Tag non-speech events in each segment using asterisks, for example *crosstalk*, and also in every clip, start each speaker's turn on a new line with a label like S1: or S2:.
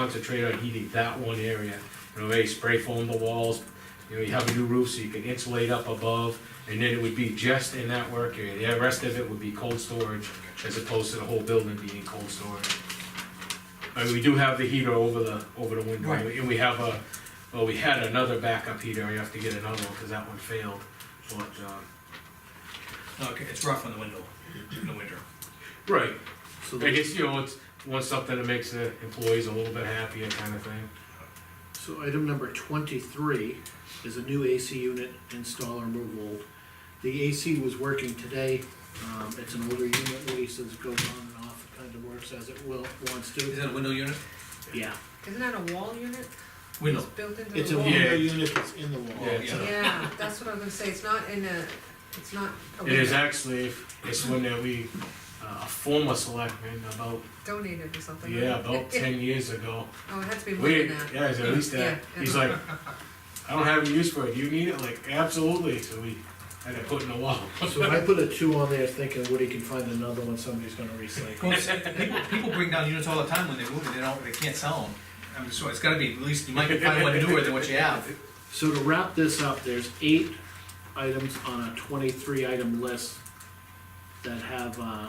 S1: concentrate on heating that one area. You know, maybe spray foam the walls, you know, you have a new roof so you can insulate up above, and then it would be just in that work area. The rest of it would be cold storage, as opposed to the whole building being cold storage. I mean, we do have the heater over the, over the window,
S2: Right.
S1: and we have a, well, we had another backup heater, you have to get another one, cause that one failed, but, uh,
S2: Okay, it's rough on the window, in the winter.
S1: Right,
S3: So
S1: I
S3: the,
S1: guess, you know, it's, want something that makes the employees a little bit happier kind of thing.
S3: so item number twenty-three is a new AC unit install or move old. The AC was working today, um, it's an older unit, Lisa's goes on and off, kind of works as it will, wants
S2: Is
S3: to.
S2: that a window unit?
S3: Yeah,
S4: Isn't that a wall unit?
S2: Window.
S4: It's built into
S3: it's
S4: the
S3: a
S4: wall?
S3: window unit that's in the wall.
S2: Yeah,
S1: Yeah.
S4: Yeah, that's what I was gonna say, it's not in a, it's not a
S1: It is
S4: window,
S1: actually, it's one that we, uh, a former selectman about,
S4: donated or something. right?
S1: yeah,
S4: *laughs*
S1: about ten years ago.
S4: Oh, it had to be more
S1: We,
S4: than
S1: yeah,
S4: that.
S1: it's at least that,
S4: Yeah.
S1: he's like, I don't have a use for it, do you need it? Like, absolutely, so we had to put in a wall.
S3: So I put a two on there thinking Woody can find another one, somebody's gonna recycle.
S2: Well, it's- People, people bring down units all the time when they move and they don't, they can't sell them. I'm just, it's gotta be, at least you might find one newer than what you have.
S3: So to wrap this up, there's eight items on a twenty-three item list that have, uh,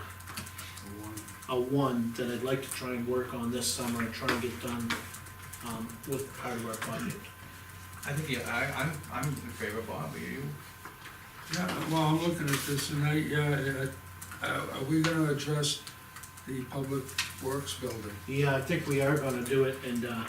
S3: a one that I'd like to try and work on this summer and try and get done, um, with part of our budget.
S2: I think, yeah, I, I'm, I'm in favor, Bob, are you?
S5: Yeah, well, I'm looking at this and I, yeah, I- I- are we gonna address the public works building?
S3: Yeah, I think we are gonna do it, and, uh,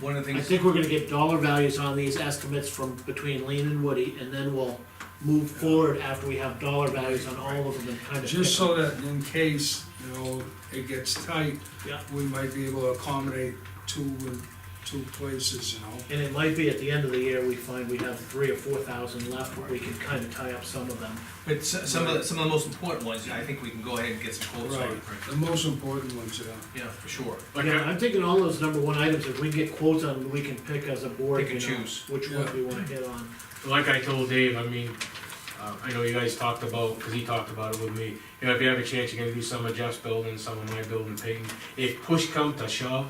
S2: One of the
S3: I
S2: things,
S3: think we're gonna get dollar values on these estimates from between Lean and Woody, and then we'll move forward after we have dollar values on all of them and kind of.
S5: Just so that in case, you know, it gets tight,
S3: Yeah.
S5: we might be able to accommodate two, in- two places, you know?
S3: And it might be at the end of the year, we find we have three or four thousand left, but we can kind of tie up some of them.
S2: but s- some of, the- some of the most important ones, I think we can go ahead and get some quotes on.
S5: Right, the most important ones, yeah.
S2: Yeah, for sure.
S1: Like,
S3: Yeah,
S1: I-
S3: I'm thinking all those number one items, if we can get quotes on, we can pick as a board,
S2: Pick and
S3: you know,
S2: choose.
S3: which ones we wanna hit on.
S1: like I told Dave, I mean, uh, I know you guys talked about, cause he talked about it with me. You know, if you have a chance, you're gonna do some of Jeff's building, some of my building, Peyton. If push come to shove,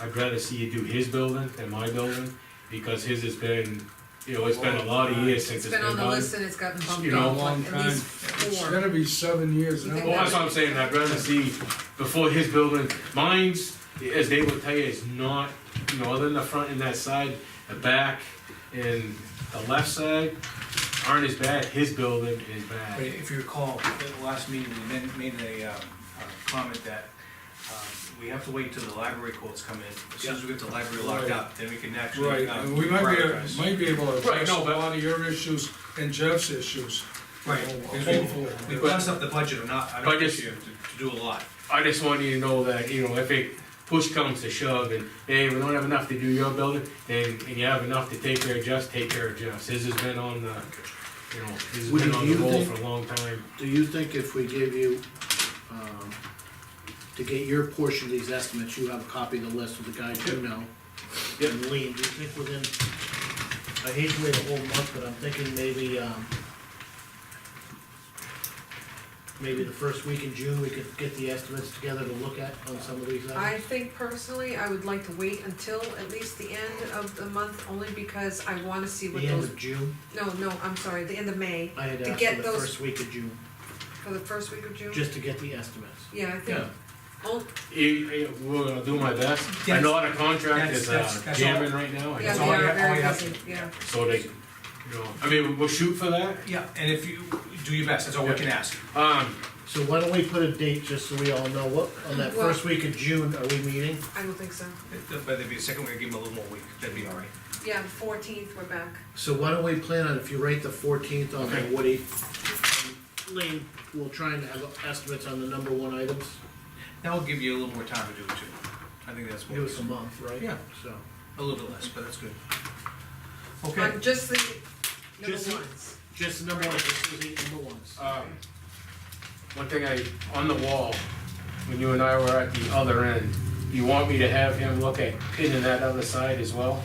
S1: I'd rather see you do his building than my building, because his has been, you know, it's been a lot of years since
S4: It's
S1: it's
S4: been on the
S1: done.
S4: list and it's gotten bumped
S1: You know,
S4: up
S5: long
S4: like at least
S5: It's
S4: four.
S5: gonna be seven years
S4: You
S5: now.
S4: think
S1: Well, that's what I'm saying, I'd rather see before his building, mine's, as Dave would tell you, is not, you know, other than the front and that side, the back and the left side aren't as bad, his building is
S2: But
S1: bad.
S2: if you recall, at the last meeting, we men- made a, um, a comment that, um, we have to wait till the library quotes come in. As soon as we get the library locked up, then we can actually.
S5: Right,
S2: um,
S5: and we might be,
S2: prioritize.
S5: might be able to address a
S1: no, but-
S5: lot of your issues and Jeff's issues. you
S2: Right,
S5: know,
S2: because we-
S5: hopefully.
S2: We passed up the budget or not, I don't
S1: Budgets.
S2: think you have to, to do a lot.
S1: I just want you to know that, you know, if it push comes to shove and, hey, we don't have enough to do your building, and, and you have enough to take care of Jeff's, take care of Jeff's. His has been on the, you know, his has
S3: Would
S1: been
S3: you
S1: on the roll
S3: think-
S1: for a long time.
S3: Do you think if we give you, um, to get your portion of these estimates, you have a copy of the list with the guys you know?
S1: Yep.
S3: And Lean, do you think within, I hate to wait a whole month, but I'm thinking maybe, um, maybe the first week in June, we could get the estimates together to look at on some of these
S4: I
S3: items?
S4: think personally, I would like to wait until at least the end of the month, only because I wanna see what
S3: The end
S4: those,
S3: of June,
S4: no, no, I'm sorry, the end of May,
S3: I had
S4: To
S3: asked
S4: get
S3: for the
S4: those-
S3: first week of June,
S4: for the first week of June.
S3: just to get the estimates.
S4: Yeah, I think,
S2: Yeah.
S4: oh,
S1: It, it, we're gonna do my best. I
S2: Yes.
S1: know our contract
S2: That's-
S1: is
S2: that's-
S1: uh,
S2: that's all.
S1: jamming right now. I
S4: yeah,
S1: know.
S2: That's
S4: they
S2: all I
S4: are
S2: have- all I
S4: very
S2: have.
S4: busy, yeah.
S1: So they, you know, I mean, we'll shoot for that.
S2: Yeah, and if you, do your best, that's all we can ask.
S1: Um,
S3: So why don't we put a date, just so we all know, what, on that
S4: Well-
S3: first week of June, are we meeting?
S4: I don't think so.
S2: But there'd be a second, we'd give them a little more week, that'd be all right.
S4: Yeah, the fourteenth, we're back.
S3: So why don't we plan on, if you rate the fourteenth on there,
S1: Okay.
S3: Woody, and Lean, we'll try and have estimates on the number one items,
S2: That'll give you a little more time to do it too. I think that's what,
S3: give us a month, right?
S2: Yeah.
S3: So,
S2: a little bit less, but that's good. Okay,
S4: On just the
S3: Just
S4: number
S3: the-
S4: ones.
S3: just the number ones, this is eight number ones.
S1: um, one thing I, on the wall, when you and I were at the other end, you want me to have him look at pinning that other side as well?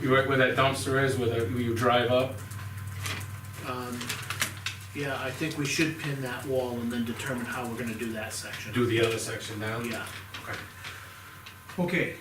S1: You right where that dumpster is, where the, where you drive up?
S3: Um, yeah, I think we should pin that wall and then determine how we're gonna do that section.
S1: Do the other section now?
S3: Yeah,
S1: Okay.
S2: okay,